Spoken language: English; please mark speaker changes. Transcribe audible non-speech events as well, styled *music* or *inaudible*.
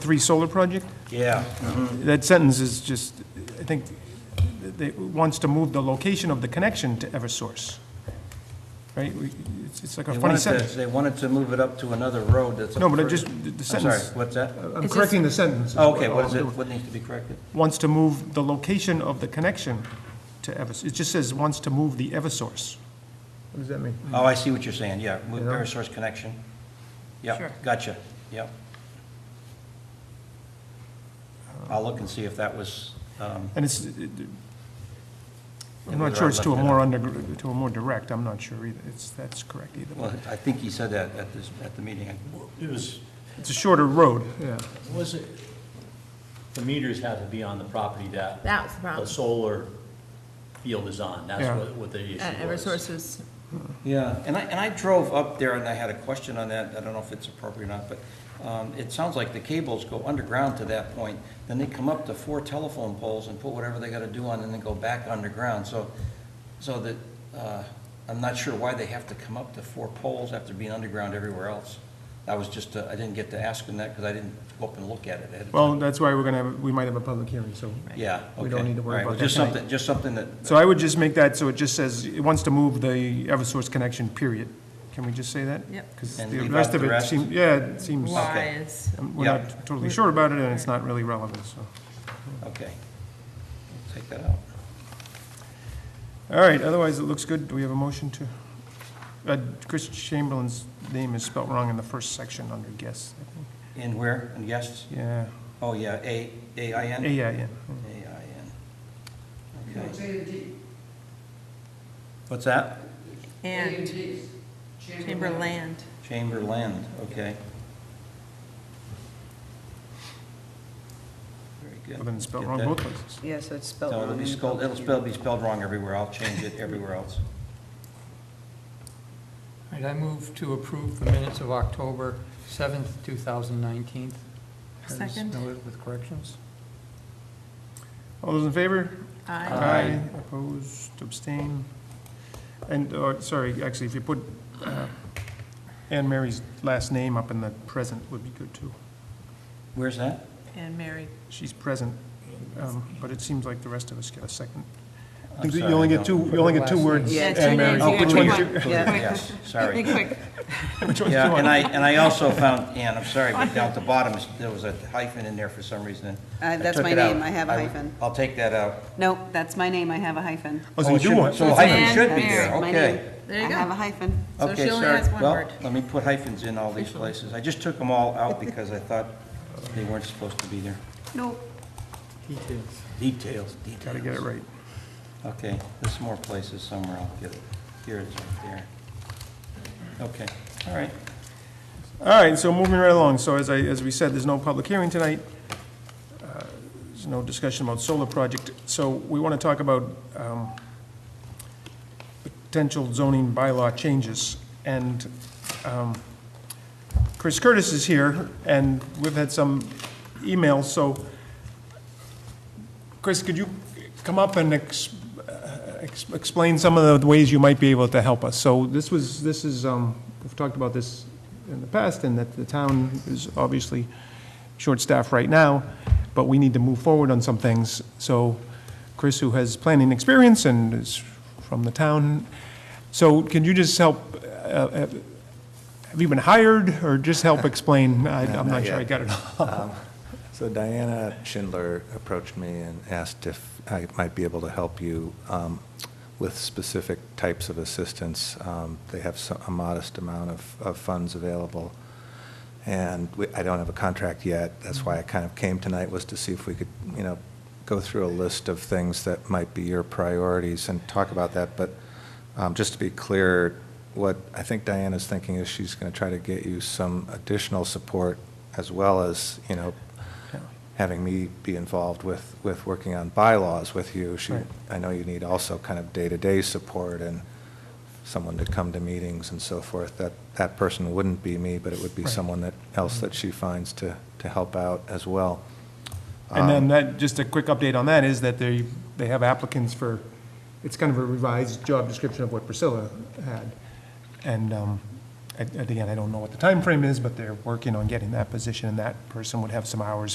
Speaker 1: three solar project?
Speaker 2: Yeah.
Speaker 1: That sentence is just, I think, they, wants to move the location of the connection to Eversource, right? We- It's, it's like a
Speaker 2: They
Speaker 1: funny
Speaker 2: wanted to,
Speaker 1: sentence.
Speaker 2: they wanted to move it up to another road that's.
Speaker 1: No, but I
Speaker 2: further-
Speaker 1: just, the- the
Speaker 2: I'm sorry,
Speaker 1: sentence,
Speaker 2: what's that?
Speaker 1: I'm
Speaker 3: It's
Speaker 1: correcting the sentence.
Speaker 2: Oh, Okay, what
Speaker 1: all
Speaker 2: is
Speaker 1: I'm
Speaker 2: it,
Speaker 1: doing.
Speaker 2: what needs to be corrected?
Speaker 1: Wants to move the location of the connection to Eversource. It just says wants to move the Eversource. What does that mean?
Speaker 2: Oh, I see what you're saying, yeah, move
Speaker 1: Yeah.
Speaker 2: Verisource connection. Yeah,
Speaker 3: Sure.
Speaker 2: gotcha,
Speaker 1: Uh,
Speaker 2: yeah. I'll look and see if that was, um,
Speaker 1: And it's, it- I'm not
Speaker 2: Whether
Speaker 1: sure
Speaker 2: I
Speaker 1: it's to a
Speaker 2: left it
Speaker 1: more under, to a more direct, I'm not sure either. It's, that's correct either.
Speaker 2: well,
Speaker 1: way.
Speaker 2: I think he said that at this, at the meeting.
Speaker 4: It was,
Speaker 1: It's a shorter road, yeah.
Speaker 4: was it, the meters have to be on the property that
Speaker 3: That was the
Speaker 4: the
Speaker 3: problem.
Speaker 4: solar field is on, that's
Speaker 1: Yeah.
Speaker 4: what, what the issue was.
Speaker 3: And Eversource was,
Speaker 2: Yeah, and I, and I drove up there and I had a question on that, I don't know if it's appropriate or not, but um, it sounds like the cables go underground to that point, then they come up to four telephone poles and put whatever they gotta do on, and then go back underground, so, so that, uh, I'm not sure why they have to come up to four poles after being underground everywhere else. I was just, uh, I didn't get to ask them that, because I didn't go up and look at it ahead of time.
Speaker 1: Well, that's why we're gonna have, we might have a public hearing, so.
Speaker 2: Yeah, okay.
Speaker 1: we don't need to worry
Speaker 2: All right, well,
Speaker 1: about that
Speaker 2: Just
Speaker 1: tonight.
Speaker 2: something, just something that,
Speaker 1: So I would just make that, so it just says, it wants to move the Eversource connection, period. Can we just say that?
Speaker 3: Yep.
Speaker 1: Because
Speaker 2: And
Speaker 1: the
Speaker 2: leave
Speaker 1: rest
Speaker 2: out
Speaker 1: of
Speaker 2: the
Speaker 1: it
Speaker 2: rest?
Speaker 1: seems, yeah, it seems,
Speaker 4: Mm-hmm.
Speaker 3: why is,
Speaker 1: um, we're
Speaker 2: Yeah.
Speaker 1: not totally sure about it, and it's not really relevant, so.
Speaker 2: okay. Take that out.
Speaker 1: All right, otherwise, it looks good. Do we have a motion to? uh, Chris Chamberlain's name is spelt wrong in the first section under guests, I think.
Speaker 2: In where, in guests?
Speaker 1: Yeah,
Speaker 2: Oh, yeah, A, A-I-N?
Speaker 1: A-I-N.
Speaker 2: A-I-N. Okay. What's that?
Speaker 3: and Chamberland.
Speaker 2: Chamberland, okay. Very
Speaker 1: Well,
Speaker 2: good.
Speaker 1: then it's spelled
Speaker 2: Get
Speaker 1: wrong
Speaker 2: that.
Speaker 1: both places.
Speaker 5: Yeah, so it's spelled
Speaker 2: No,
Speaker 5: wrong.
Speaker 2: it'll be
Speaker 5: in the
Speaker 2: spelled, it'll
Speaker 5: public
Speaker 2: spell, be spelled wrong everywhere. I'll change it everywhere else.
Speaker 6: All right, I move to approve the minutes of October 7th, 2019. As
Speaker 3: Second.
Speaker 6: noted With corrections.
Speaker 1: All those in favor? Uh,
Speaker 3: I,
Speaker 2: Aye.
Speaker 1: Opposed, abstain. And, uh, sorry, actually, if you put uh, Anne Mary's last name up in the present would be good, too.
Speaker 2: Where's that?
Speaker 3: and Mary.
Speaker 1: She's present, um, but it seems like the rest of us get a second.
Speaker 2: I'm
Speaker 1: I think that
Speaker 2: sorry,
Speaker 1: You only
Speaker 2: no.
Speaker 1: get two, you only get two
Speaker 6: Last name.
Speaker 1: words.
Speaker 5: Yeah,
Speaker 1: Anne
Speaker 5: two
Speaker 1: Mary.
Speaker 5: names,
Speaker 2: Oh,
Speaker 5: you
Speaker 2: which
Speaker 5: get
Speaker 2: one?
Speaker 5: one.
Speaker 2: you-
Speaker 5: *laughs* Yeah.
Speaker 2: Yes, sorry. *laughs*
Speaker 3: quick.
Speaker 1: Which one do you
Speaker 2: Yeah, and
Speaker 1: want?
Speaker 2: I, and I also found, Ann, I'm sorry, but down at the bottom, there was a hyphen in there for some reason. and
Speaker 5: Uh,
Speaker 2: I
Speaker 5: that's
Speaker 2: took
Speaker 5: my
Speaker 2: it out.
Speaker 5: name. I have a
Speaker 2: would-
Speaker 5: hyphen.
Speaker 2: I'll take that out.
Speaker 5: Nope, that's my name, I have a hyphen.
Speaker 1: Oh, so
Speaker 2: Oh,
Speaker 1: you
Speaker 2: it
Speaker 1: do
Speaker 2: should-
Speaker 1: want-
Speaker 2: So a
Speaker 5: It's
Speaker 2: hyphen
Speaker 3: Ann
Speaker 2: should be
Speaker 3: Mary.
Speaker 2: there,
Speaker 5: My
Speaker 2: okay.
Speaker 5: name.
Speaker 3: There you
Speaker 5: I
Speaker 3: go.
Speaker 5: have a hyphen.
Speaker 3: So
Speaker 2: Okay,
Speaker 3: she only
Speaker 2: sorry.
Speaker 3: has one
Speaker 2: Well,
Speaker 3: word.
Speaker 2: Let me put hyphens in all these places. I just took them all out because I thought they weren't supposed to be there.
Speaker 5: Nope.
Speaker 6: Details.
Speaker 2: Details,
Speaker 1: Gotta
Speaker 2: details.
Speaker 1: get it right.
Speaker 2: Okay, there's some more places somewhere, I'll get it. Here it is, right there. Okay, all right.
Speaker 1: All right, so moving right along, so as I, as we said, there's no public hearing tonight. Uh, There's no discussion about solar project, so we want to talk about um, potential zoning bylaw changes. And um, Chris Curtis is here, and we've had some emails, so Chris, could you come up and ex- ex- explain some of the ways you might be able to help us. So this was, this is, um, we've talked about this in the past, and that the town is obviously short-staffed right now, but we need to move forward on some things. So Chris, who has planning experience and is from the town, so can you just help, uh, uh, have you been hired, or just
Speaker 7: *laughs*
Speaker 1: help explain? I-
Speaker 7: No,
Speaker 1: I'm
Speaker 7: not
Speaker 1: not sure I
Speaker 7: yet.
Speaker 1: got it all.
Speaker 7: So Diana Schindler approached me and asked if I might be able to help you um, with specific types of assistance. Um, They have so- a modest amount of, of funds available. And we, I don't have a contract yet. That's why I kind of came tonight was to see if we could, you know, go through a list of things that might be your priorities and talk about that. But um, just to be clear, what I think Diana's thinking is she's going to try to get you some additional support as well as, you know, having me be involved with, with working on bylaws with you. She,
Speaker 1: Right.
Speaker 7: I know you need also kind of day-to-day support and someone to come to meetings and so forth. That, that person wouldn't be me, but it would be
Speaker 1: Right. Mm-hmm.
Speaker 7: someone that, else that she finds to, to help out as well.
Speaker 1: And then that, just a quick update on that is that they, they have applicants for, it's kind of a revised job description of what Priscilla had. And, um, I- again, I don't know what the time frame is, but they're working on getting that position, and that person would have some hours